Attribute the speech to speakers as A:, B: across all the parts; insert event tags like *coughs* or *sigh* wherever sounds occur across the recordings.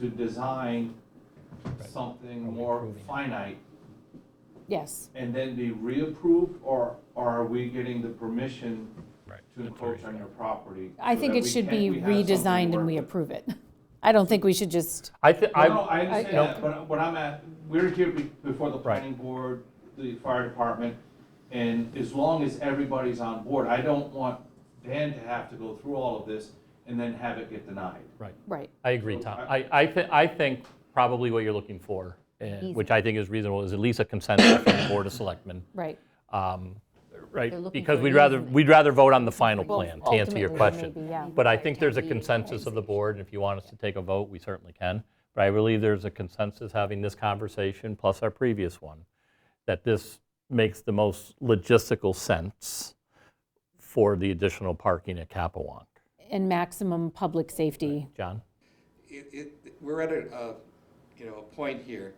A: to design
B: Right. Are
A: something
B: we
A: more
B: approving it?
A: finite
C: Yes,
A: and then be reapproved, or are we getting the permission
B: Right.
A: to encroach on your property?
C: I
A: so
C: think
A: that
C: it
A: we
C: should
A: can-
C: be
A: we have something to
C: redesigned and
A: work
C: we
A: with?
C: approve it. *laughs* I don't think we should just,
B: I think,
A: No, no,
B: I,
A: I understand
C: no.
A: that, but what I'm at, we're here be- before the
B: Right.
A: planning board, the fire department, and as long as everybody's on board, I don't want Dan to have to go through all of this and then have it get denied.
B: right,
C: right,
B: I agree, Tom. I, I thi, I think probably what you're looking for, and- which I think is reasonable, is at least a consensus from the Board of Selectmen,
C: right.
B: um,
D: They're
B: right?
D: looking
B: Because
D: for
B: we'd rather,
D: easement.
B: we'd rather vote on the final
D: Well,
B: plan, to answer your
D: ultimately,
B: question.
D: maybe, yeah.
B: But I think
D: Town
B: there's a
D: meeting.
B: consensus of the board, and if you want us to take a vote, we certainly can. But I believe there's a consensus having this conversation, plus our previous one, that this makes the most logistical sense for the additional parking at Capewalk.
C: And maximum public safety.
B: John?
E: it, it, we're at a, uh, you know, a point here.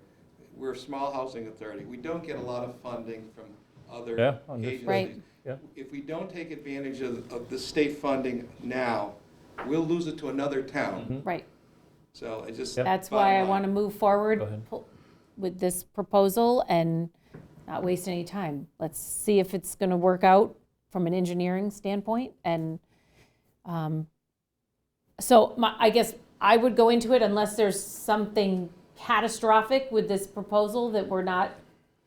E: We're a small housing authority. We don't get a lot of funding from
B: Yeah,
E: other
B: understood.
C: Right.
E: agencies.
B: Yeah.
E: If we don't take advantage of, of the state funding now, we'll lose it to another town.
C: Right.
E: So I just.
C: That's why I
E: bottom line.
C: want to move forward pu- with this proposal and not waste any time. Let's see if it's going to work out from an engineering standpoint. And um, so my, I guess I would go into it unless there's something catastrophic with this proposal that we're not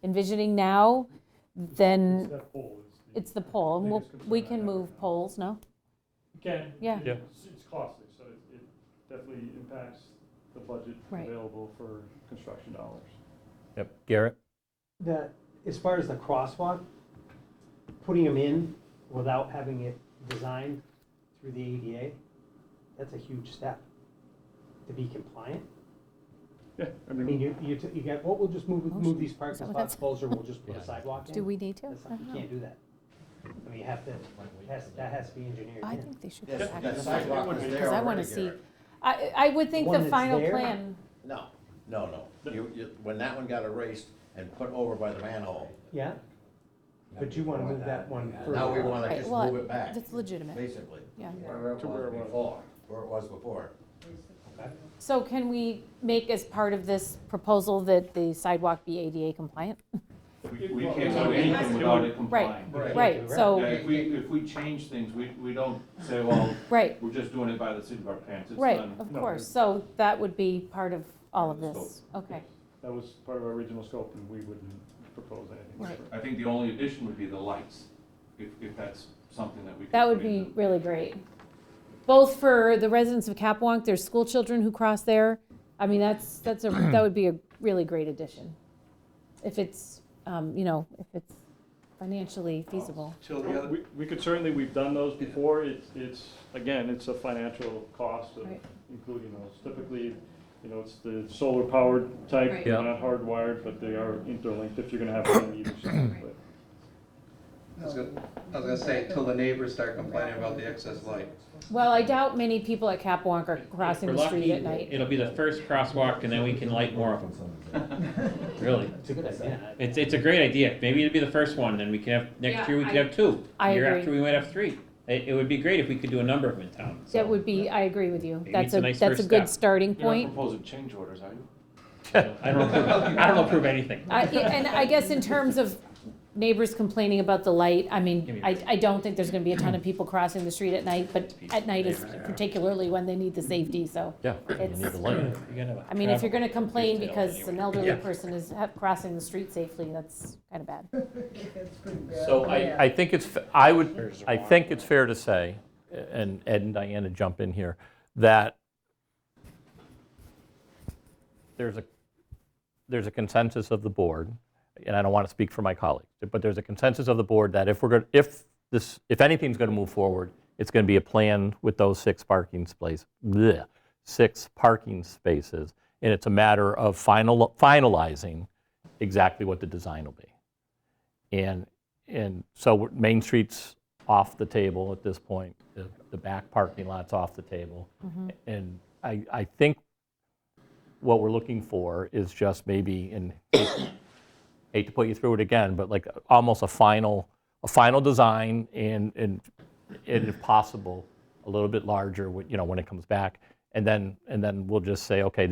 C: envisioning now, then
F: That pole is. the-
C: Mm. it's the poll. And we'll-
F: biggest
C: We
F: concern I
C: can
F: have
C: move
F: right now.
C: polls, no?
F: You Can.
C: Yeah.
B: Yeah.
F: It's it's costly, so it- it definitely impacts the budget
C: Right.
F: available for construction dollars.
B: Yep, Garrett?
G: that, as far as the crosswalk, putting them in without having it designed through the ADA, that's a huge step to be compliant.
F: Yeah, I
G: I mean,
F: mean,
G: you, you, t- you got, well, we'll just move, move these
C: Is that
G: parking
C: what
G: spots
C: that's-
G: closer, we'll just put
B: Yeah.
G: a sidewalk in.
C: Do we need to?
G: That's not- You can't do that. I mean, you have to, has, that has to be engineered
C: I
G: in.
C: think they should.
H: Yes,
C: go back
H: that
C: and-
H: sidewalk was there
C: Because I want to
H: already,
C: see,
H: Garrett.
C: I, I would think
G: The
C: the
G: one that's
C: final
G: there?
C: plan,
H: No, no, no. You, you, when that one got erased and put over by the manhole.
G: Yeah? But you wanna move that one further.
H: Now we wanna
C: Right,
H: just
C: well,
H: move it back,
C: that's legitimate,
H: basically.
C: yeah.
H: Where it
F: To where
H: was
F: it was.
H: before, where it was before.
C: So can we make as part of this proposal that the sidewalk be ADA compliant?
A: We- We can't do anything without it
C: Right,
A: complying.
H: Right.
C: right,
A: Yeah,
C: so,
A: If we, if we change things, we, we don't say, well,
C: right,
A: we're just doing it by the seat of our pants. It's
C: right,
A: done.
C: of
F: No,
C: course, so that would be part of all of this, okay,
F: that was part of our original scope and we wouldn't propose anything.
C: Right.
F: different.
A: I think the only addition would be the lights, if, if that's something that we. could
C: that would
A: put in.
C: be really great. Both for the residents of Capewalk, there's school children who cross there, I mean, that's, that's a, that would be a really great addition. If it's, um, you know, if it's financially feasible.
E: Till the other,
F: We- We could certainly, we've done those before. It's, it's, again, it's a financial cost of
C: Right.
F: including those. Typically, you know, it's the solar powered type,
C: Right.
F: they're
B: Yeah.
F: not hardwired, but they are interlinked if you're gonna have one on either
C: *coughs*
F: side, but.
E: I was gonna, I was gonna say, till the neighbors start complaining about the excess light.
C: Well, I doubt many people at Capewalk are crossing
I: We're
C: the street
I: lucky,
C: at night.
I: It'll be the first crosswalk and then we can light more of them. Really.
G: It's a good idea.
I: It's, it's a great idea. Maybe it'll be the first one, then we can have,
C: Yeah,
I: next year we could
C: I-
I: have two.
C: I
I: Year
C: agree.
I: after we might have three. It, it would be great if we could do a number of them in town, so.
C: That would be, I agree with you.
I: Maybe
C: That's
I: it's a
C: a,
I: nice
C: that's a
I: first
C: good
I: step.
C: starting
A: You're not
C: point.
A: proposing change orders, are you?
I: I don't approve, I don't approve anything.
C: I- And I guess in terms of neighbors complaining about the light, I
I: Give
C: mean,
I: me a
C: I, I don't think there's gonna be a ton of people crossing the street at night, but at night is particularly when they need the safety, so.
B: Yeah.
C: It's-
B: You need the light.
C: I mean, if you're gonna complain
I: detail
C: because
I: anyway.
C: an elderly
B: Yeah.
C: person is ha- crossing the street safely, that's kinda bad.
B: So I, I think it's, f- I would, I think it's fair to say, and Ed and Diana jump in here, that there's a, there's a consensus of the board, and I don't want to speak for my colleagues, but there's a consensus of the board that if we're going, if this, if anything's going to move forward, it's going to be a plan with those six parking space, bleh, six parking spaces, and it's a matter of final, finalizing exactly what the design will be. And, and so we're- Main Street's off the table at this point, the, the back parking lot's off the table. And I, I think what we're looking for is just maybe, and hate to put you through it again, but like almost a final, a final design and, and, and if possible, a little bit larger, when- you know, when it comes back. And then, and then we'll just say, okay,